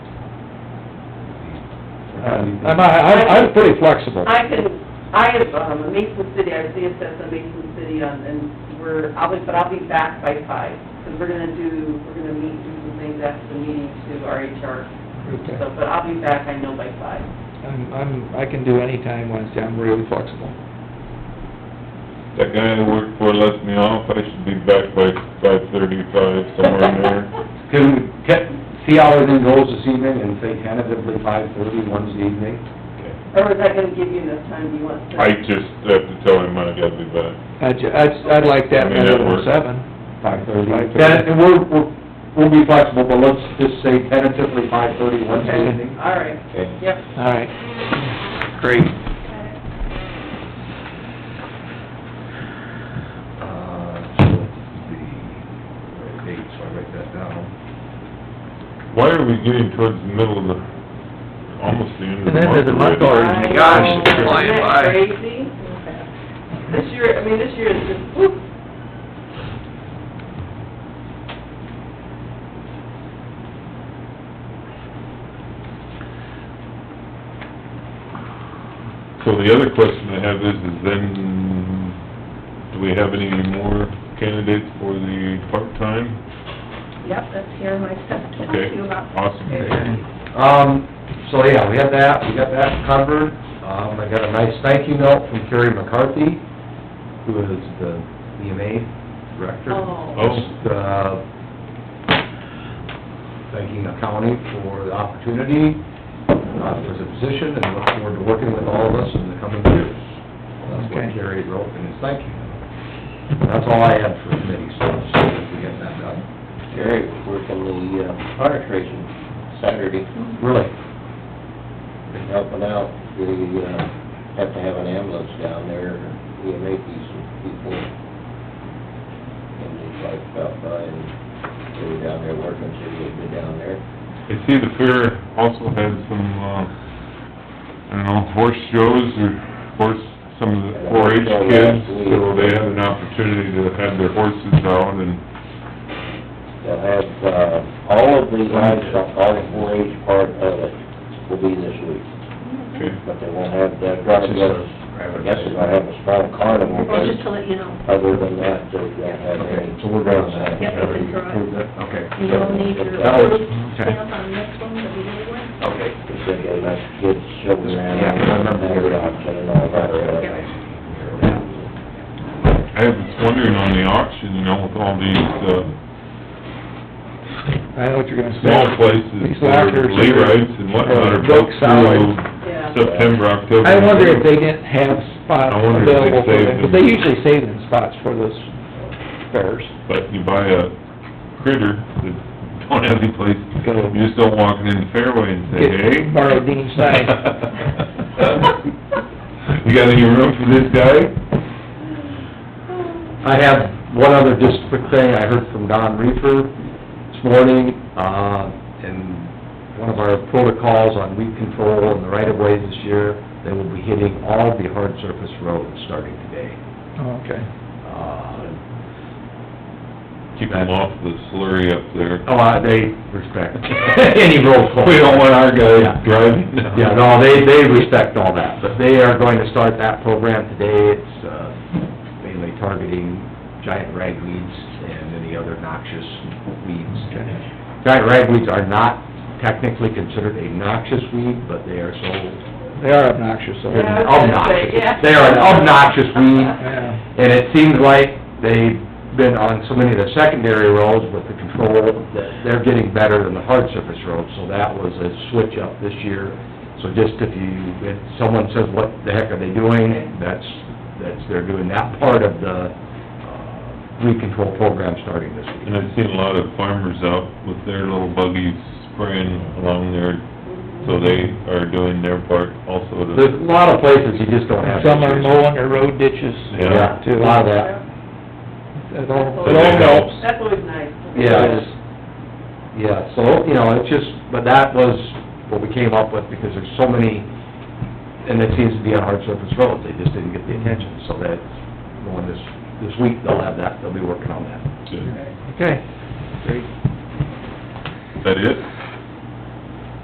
Um, Um, I'm, I'm, I'm pretty flexible. I can, I have, um, a Mason City, I have CSS in Mason City, um, and we're, I'll be, but I'll be back by five, because we're gonna do, we're gonna meet, do some things after the meeting to our HR, Okay. so, but I'll be back, I know, by five. I'm, I'm, I can do any time Wednesday, I'm really flexible. That guy I work for left me off, I should be back by five thirty-five, somewhere in there. Can we get, see how everything goes this evening and say tentatively five thirty Wednesday evening? Or is that gonna give you enough time, do you want to? I just have to tell him I gotta be back. I'd, ju- I'd, I'd like that I mean, that rather than works. seven. Five thirty. 5:30. That, and we'll, we'll, we'll be flexible, but let's just say tentatively five thirty Wednesday Okay. evening. All right, yep. All right. Great. Uh, so it's the eight, so I write that down. Why are we getting towards the middle of the, almost the end of the month? The end of the month already? already. my gosh, it's I know, flying isn't by. that crazy? This year, I mean, this year is just, whoop. So the other question I have is, is then, do we have any more candidates for the part-time? Yep, that's here, my stuff to talk to Okay, you about. awesome. Um, so yeah, we have that, we got that covered. Um, I got a nice thank you note from Kerry McCarthy, who is the EMA director. Oh. Oh. Just, uh, thanking the county for the opportunity, uh, for the position, and look forward to working with all of us in the coming years. That's what Okay. Kerry wrote in his thank you note. That's all I had for committee stuff, so if we get that done. Jerry was working the uh, harness racing Saturday, Really, and helping out. They, uh, have to have an ambulance down there, EMA piece of people. And they like stopped by and they were down there working, so they'd been down there. I see the fair also had some, uh, I don't know, horse shows or horse, some of the four H Oh, kids, so they had an opportunity to have their horses out and, They'll have, uh, all of the livestock, all the four H part of it will be this week, okay, but they won't have the carnival. I guess they're gonna have a small carnival, Well, just but to let you know, other than that, they don't have any. Okay, so we're done. Yep, we can throw it. Prove that? Okay. you'll need your That was- approved okay. stamp on this one, the beginning one. Okay. He said they let kids show around, Yeah, I remember. they were out and all that stuff. I was wondering on the auction, you know, with all these, uh, I know what you're gonna say. small places, These that lockers are are- lay rights and whatnot are booked Booked solid. through Yeah. September, October. I wonder if they didn't have spots I wonder if they available for saved them, but them. they usually save them spots for those fairs. But you buy a critter that don't have any place, Go. you just don't walk it in the fairway and say, Get- hey. borrow Dean's sign. You got any room for this guy? I have one other just quick thing, I heard from Don Reefer this morning, uh, in one of our protocols on weed control and the right-of-ways this year, they will be hitting all the hard surface roads starting today. Oh, Okay. Uh, Keep him off the slurry up there. oh, uh, they respect any road closed. We don't want Yeah. our guys driving down. Yeah, no, they, they respect all that, but they are going to start that program today. It's, uh, mainly targeting giant ragweeds and any other noxious weeds. Giant ragweeds are not technically considered a noxious weed, but they are so They are obnoxious, so. Yeah. I was gonna say, obnoxious. yeah. They are an obnoxious weed. Yeah. And it seems like they've been on so many of the secondary roads with the control, that they're getting better than the hard surface roads, so that was a switch up this year. So just if you, if someone says, what the heck are they doing, that's, that's, they're doing that part of the uh, weed control program starting this And week. I've seen a lot of farmers out with their little buggies spraying along there, so they are doing their part also to... There's a lot of places you just don't have. And Some are mowing their road ditches. Yeah. Yeah, a lot of that. It all, So it they all help. helps. That's always nice. Yeah, it's- yeah, so, you know, it's just, but that was what we came up with, because there's so many, and it seems to be on hard surface roads, they just didn't get the attention, so that's, going this, this week, they'll have that, they'll be working on that. Is Okay. that it?